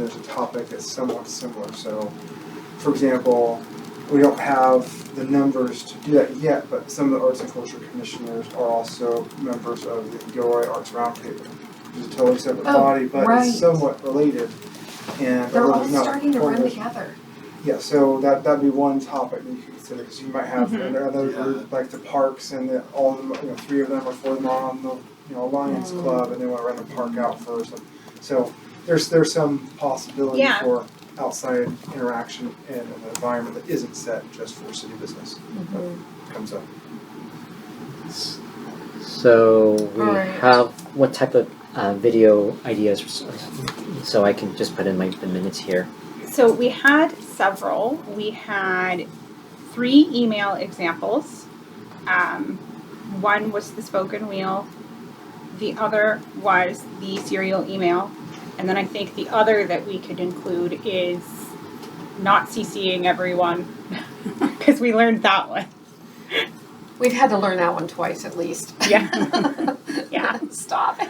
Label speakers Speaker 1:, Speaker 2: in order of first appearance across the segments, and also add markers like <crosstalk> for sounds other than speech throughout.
Speaker 1: that the topic is somewhat similar. So, for example, we don't have the numbers to do that yet, but some of the Arts and Culture Commissioners are also members of the Gilroy Arts Roundtable, which is a totally separate
Speaker 2: Oh,
Speaker 1: body, but
Speaker 2: right.
Speaker 1: it's somewhat related. And
Speaker 2: They're all
Speaker 1: although not
Speaker 2: starting to run
Speaker 1: formally-
Speaker 2: together.
Speaker 1: Yeah, so that that'd be one topic that you could consider, because you might have
Speaker 2: Mhm.
Speaker 1: another
Speaker 3: Yeah.
Speaker 1: group, like the parks and the, all of them, you know, three of them or four of them are on the, you know, Lions
Speaker 2: Mm.
Speaker 1: Club and they wanna rent a park out first. and- So there's there's some possibility
Speaker 4: Yeah.
Speaker 1: for outside interaction in an environment that isn't set just for city business comes up.
Speaker 5: So we
Speaker 2: Alright.
Speaker 5: have what type of uh, video ideas? So I can just put in my the minutes here.
Speaker 4: So we had several. We had three email examples. Um, one was the spoken wheel, the other was the serial email, and then I think the other that we could include is not CCing everyone <laughs> because we learned that one.
Speaker 2: We've had to learn that one twice at least. <laughs>
Speaker 4: Yeah. <laughs> Yeah.
Speaker 2: Stop it.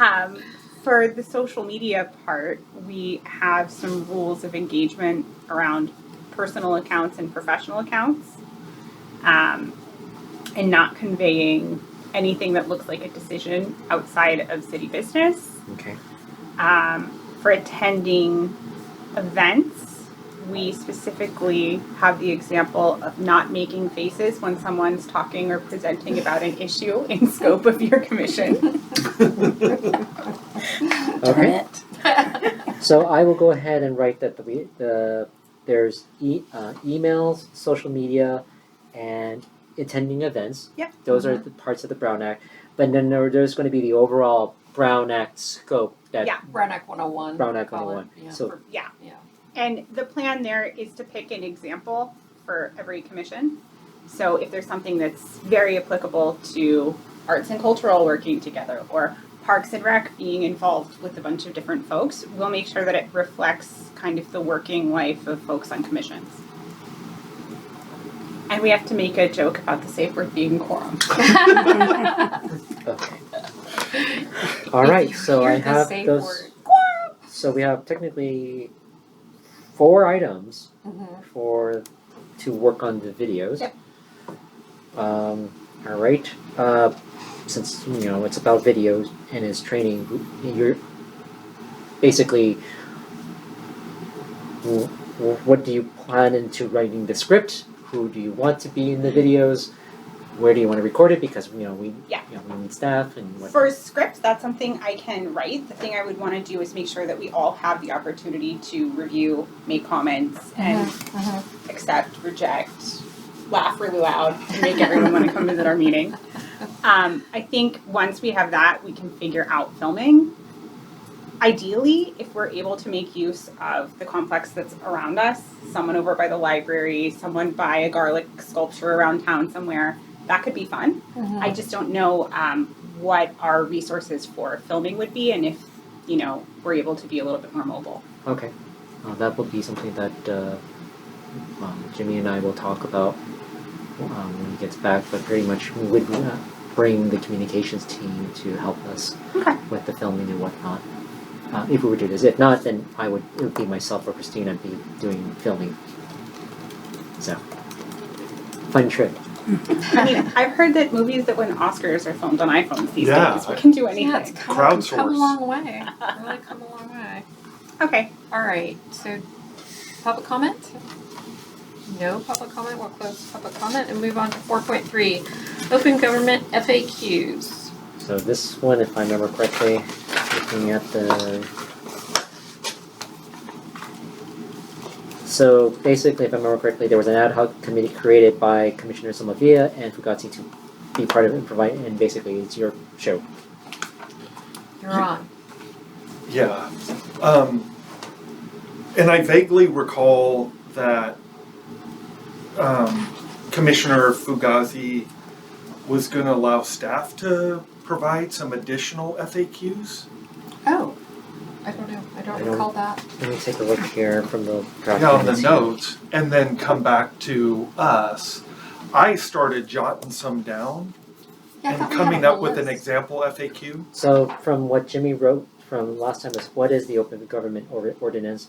Speaker 4: Um, for the social media part, we have some rules of engagement around personal accounts and professional accounts, um, and not conveying anything that looks like a decision outside of city business.
Speaker 5: Okay.
Speaker 4: Um, for attending events, we specifically have the example of not making faces when someone's talking or presenting about an issue in scope of your commission.
Speaker 5: Okay. So I will go ahead and write that the we- the there's e- uh, emails, social media, and attending events.
Speaker 4: Yeah.
Speaker 5: Those are the parts of the Brown Act. But then there, there's going to be the overall Brown Act scope that
Speaker 4: Yeah.
Speaker 2: Roanoke 101.
Speaker 5: Brown Act
Speaker 2: call it,
Speaker 5: 101.
Speaker 2: yeah.
Speaker 5: So
Speaker 4: Yeah.
Speaker 2: Yeah.
Speaker 4: And the plan there is to pick an example for every commission. So if there's something that's very applicable to arts and cultural working together or parks and rec being involved with a bunch of different folks, we'll make sure that it reflects kind of the working life of folks on commissions. And we have to make a joke about the safe word being quorum.
Speaker 5: okay. All right. So I
Speaker 2: Hear the
Speaker 5: have
Speaker 2: safe
Speaker 5: those.
Speaker 2: word.
Speaker 5: So we have technically four items
Speaker 2: Mhm.
Speaker 5: for to work on the videos.
Speaker 4: Yep.
Speaker 5: Um, all right. Uh, since you know it's about videos and it's training, you're basically wh- wh- what do you plan into writing the script? Who do you want to be
Speaker 4: Mm-hmm.
Speaker 5: in the videos? Where do you want to record it? Because you know we
Speaker 4: Yeah.
Speaker 5: you know, we need staff and what.
Speaker 4: For scripts, that's something I can write. The thing I would want to do is make sure that we all have the opportunity to review, make comments, and accept, reject, laugh really loud, and make everyone want to come visit our meeting. Um, I think once we have that, we can figure out filming. Ideally, if we're able to make use of the complex that's around us, someone over by the library, someone by a garlic sculpture around town somewhere, that could be fun. I just don't know um, what our resources for filming would be and if, you know, we're able to be a little bit more mobile.
Speaker 5: Okay. Uh, that will be something that uh, um, Jimmy and I will talk about um, when he gets back, but pretty much we would uh, bring the communications team to help us
Speaker 4: Okay.
Speaker 5: with the filming and whatnot. Uh, if we were to do this, if not, then I would. It would be myself or Christina be doing filming. So, fun trip.
Speaker 4: I mean, I've heard that movies that win Oscars are filmed on iPhones these
Speaker 3: Yeah,
Speaker 4: days. We
Speaker 3: I-
Speaker 4: can do anything.
Speaker 2: Yeah, it's come, come
Speaker 3: Crowdsource.
Speaker 2: a long way. Really come a long way.
Speaker 4: okay.
Speaker 2: All right, so public comment? No public comment, we'll close public comment and move on to four point three, open government FAQs.
Speaker 5: So this one, if I remember correctly, looking at the. So basically, if I remember correctly, there was an ad hoc committee created by Commissioner Somavia and Fugazi to be part of it and provide, and basically it's your show.
Speaker 2: You're on.
Speaker 3: Yeah. Um, and I vaguely recall that um, Commissioner Fugazi was going to allow staff to provide some additional FAQs.
Speaker 2: Oh, I don't know, I
Speaker 5: I
Speaker 2: don't
Speaker 5: don't-
Speaker 2: recall that.
Speaker 5: Let me take a look here from the draft.
Speaker 3: Yeah, on the
Speaker 5: minutes.
Speaker 3: notes, and then come back to us. I started jotting some down
Speaker 2: Yeah, I
Speaker 3: and
Speaker 2: thought we had a
Speaker 3: coming up
Speaker 2: whole
Speaker 3: with an
Speaker 2: list.
Speaker 3: example FAQ.
Speaker 5: So from what Jimmy wrote from last time was what is the Open Government Or- Ordinance?